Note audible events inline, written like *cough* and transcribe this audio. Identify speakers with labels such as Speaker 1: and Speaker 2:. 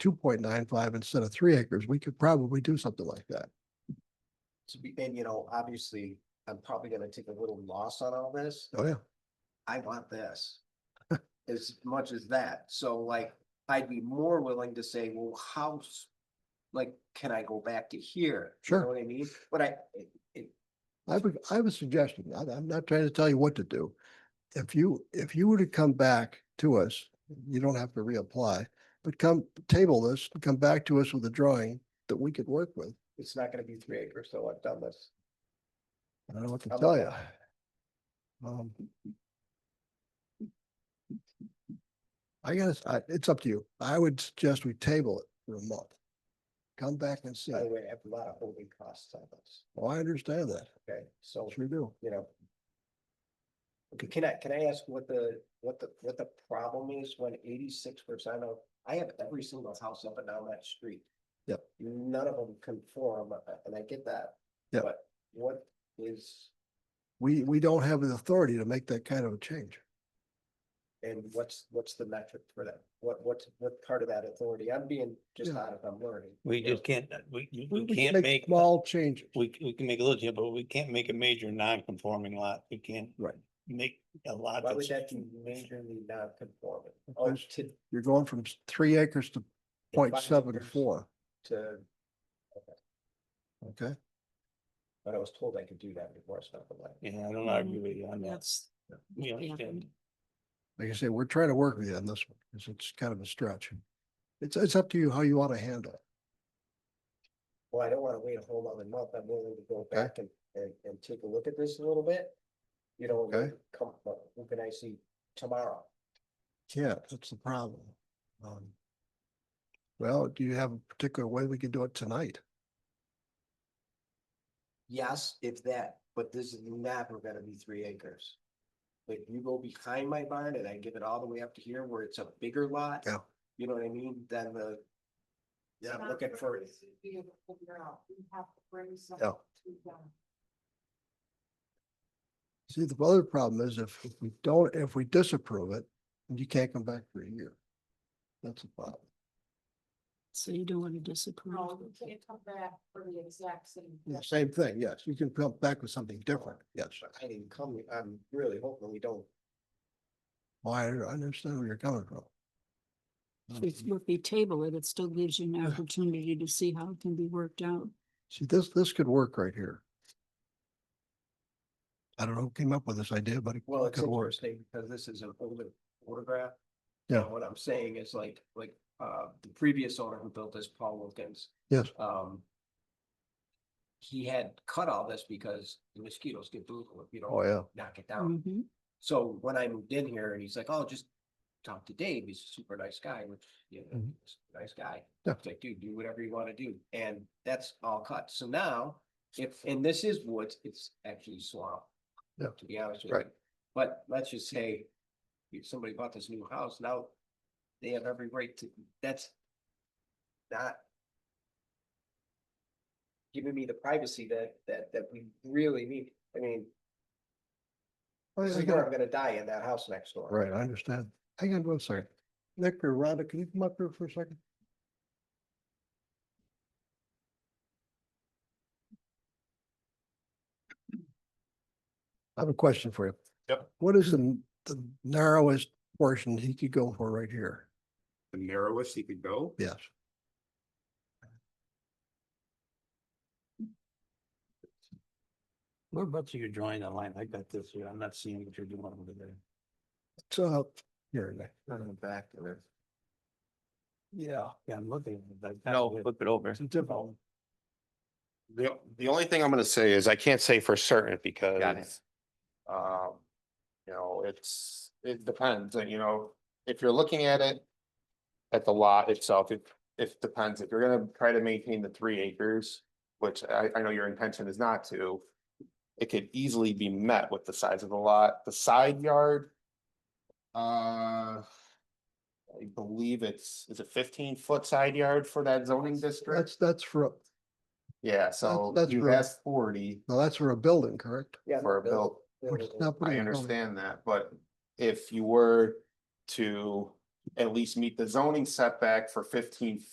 Speaker 1: two point nine five instead of three acres, we could probably do something like that.
Speaker 2: to be, and you know, obviously, I'm probably gonna take a little loss on all this.
Speaker 1: Oh, yeah.
Speaker 2: I want this. *laughs* As much as that, so like, I'd be more willing to say, well, how, s- like, can I go back to here? You
Speaker 1: Sure.
Speaker 2: know What I mean, but I, it- it-
Speaker 1: I have a I have a suggestion. I, I'm not trying to tell you what to do. If you, if you were to come back to us, you don't have to reapply, but come table this, and come back to us with a drawing that we could work with.
Speaker 2: it's not gonna be three acres, so I've done this.
Speaker 1: I don't know what to
Speaker 2: How
Speaker 1: tell
Speaker 2: about
Speaker 1: you. Um. I guess, I, it's up to you. I would suggest we table it for a month. Come back and see.
Speaker 2: By the way, I have a lot of holding costs on this,
Speaker 1: Well, I understand that.
Speaker 2: okay, so,
Speaker 1: Sure do.
Speaker 2: you know. Can I, can I ask what the, what the, what the problem is when eighty-six percent of, I have every single house up and down that street.
Speaker 1: Yep.
Speaker 2: None of them conform, uh, and I get that.
Speaker 1: Yep.
Speaker 2: But what is,
Speaker 1: We, we don't have the authority to make that kind of a change.
Speaker 2: and what's, what's the metric for that? What, what, what part of that authority? I'm being just
Speaker 1: Yeah.
Speaker 2: out of, I'm learning.
Speaker 3: We
Speaker 2: you know?
Speaker 3: just can't, uh, we, you-
Speaker 1: We
Speaker 3: we
Speaker 1: can
Speaker 3: can't make,
Speaker 1: Small changes.
Speaker 3: we, we can make a little, change, but we can't make a major non-conforming lot. We can't.
Speaker 1: Right.
Speaker 3: Make a lot
Speaker 2: Why would
Speaker 3: that's.
Speaker 2: that be majorly non-conforming? Oh,
Speaker 1: Because-
Speaker 2: to,
Speaker 1: You're going from s- three acres to point
Speaker 2: five
Speaker 1: seven
Speaker 2: acres.
Speaker 1: four,
Speaker 2: to,
Speaker 1: okay?
Speaker 2: but I was told I could do that before I stopped the light.
Speaker 3: Yeah, I don't argue with you on that.
Speaker 4: That's,
Speaker 3: We
Speaker 4: Yeah.
Speaker 3: understand.
Speaker 1: Like I say, we're trying to work with you on this one, because it's kind of a stretch. It's, it's up to you how you want to handle it.
Speaker 2: Well, I don't wanna wait a whole nother month, I'm willing to go back and, and, and take a look at this a little bit. You know, and
Speaker 1: Okay.
Speaker 2: come, but who can I see tomorrow?
Speaker 1: Yeah, that's the problem. Um, Well, do you have a particular way we can do it tonight?
Speaker 2: Yes, if that, but this is never gonna be three acres. Like you go behind my barn and I give it all the way up to here where it's a bigger lot.
Speaker 1: Yeah.
Speaker 2: You know what I mean, then the. Yeah, I'm looking for it.
Speaker 4: Be able to figure out, we have to bring some
Speaker 1: Yeah.
Speaker 4: to uh, them.
Speaker 1: See, the other problem is if if we don't, if we disapprove it, then you can't come back for a year. That's the problem.
Speaker 5: So you don't want to disapprove.
Speaker 4: No, we can't come back for the exact same. thing.
Speaker 1: Same thing, yes, you can come back with something different, yes.
Speaker 2: I didn't come, I'm really hoping we don't.
Speaker 1: Well, I I understand where you're coming from. Um,
Speaker 5: If if we table it, it still gives you an opportunity to see how it can be worked out.
Speaker 1: See, this, this could work right here. I don't know who came up with this idea, but it
Speaker 2: Well, it's
Speaker 1: could work.
Speaker 2: interesting because this is an older photograph.
Speaker 1: Yeah.
Speaker 2: And What I'm saying is like, like, uh, the previous owner who built this, Paul Wilkins.
Speaker 1: Yes.
Speaker 2: Um. He had cut all this because the mosquitoes get brutal if you
Speaker 1: Oh,
Speaker 2: don't
Speaker 1: yeah.
Speaker 2: knock it down.
Speaker 5: Mhm.
Speaker 2: So when I moved in here and he's like, oh, just talk to Dave. He's a super nice guy, which, you know,
Speaker 1: Mhm.
Speaker 2: he's a nice guy.
Speaker 1: Yeah.
Speaker 2: It's like, dude, do whatever you want to do. And that's all cut. So now, if, and this is woods, it's actually swamp.
Speaker 1: Yeah.
Speaker 2: To be honest with you.
Speaker 1: Right.
Speaker 2: But let's just say if somebody bought this new house, now they have every right to, that's not giving me the privacy that, that, that we really need. I mean,
Speaker 1: I-
Speaker 2: this
Speaker 1: I
Speaker 2: is
Speaker 1: got-
Speaker 2: where I'm gonna die in that house next door.
Speaker 1: Right, I understand. Hang on one second. Nick or Rhonda, can you come up here for a second? I have a question for you.
Speaker 6: Yep.
Speaker 1: What is the, the narrowest portion he could go for right here?
Speaker 6: the narrowest he could go.
Speaker 1: Yes,
Speaker 3: Whereabouts are you drawing the line? I got this here. I'm not seeing what you're doing over there.
Speaker 1: so here, Nick.
Speaker 2: On the back of it.
Speaker 3: Yeah. Yeah, I'm looking.
Speaker 7: No, flip it over.
Speaker 3: It's a different.
Speaker 6: The, the only thing I'm gonna say is I can't say for certain
Speaker 7: Got it.
Speaker 6: because, um, you know, it's, it depends, and you know, if you're looking at it at the lot itself, it, it depends. If you're gonna try to maintain the three acres, which I, I know your intention is not to, it could easily be met with the size of the lot. The side yard, uh, I believe it's, is it fifteen foot side yard for that zoning district?
Speaker 1: That's, that's for,
Speaker 6: Yeah, so
Speaker 1: that's
Speaker 6: you
Speaker 1: right.
Speaker 6: asked forty
Speaker 1: now that's for a building, correct?
Speaker 2: Yeah.
Speaker 6: for a build.
Speaker 1: Which is not putting
Speaker 6: I
Speaker 1: a building.
Speaker 6: understand that, but if you were to at least meet the zoning setback for fifteen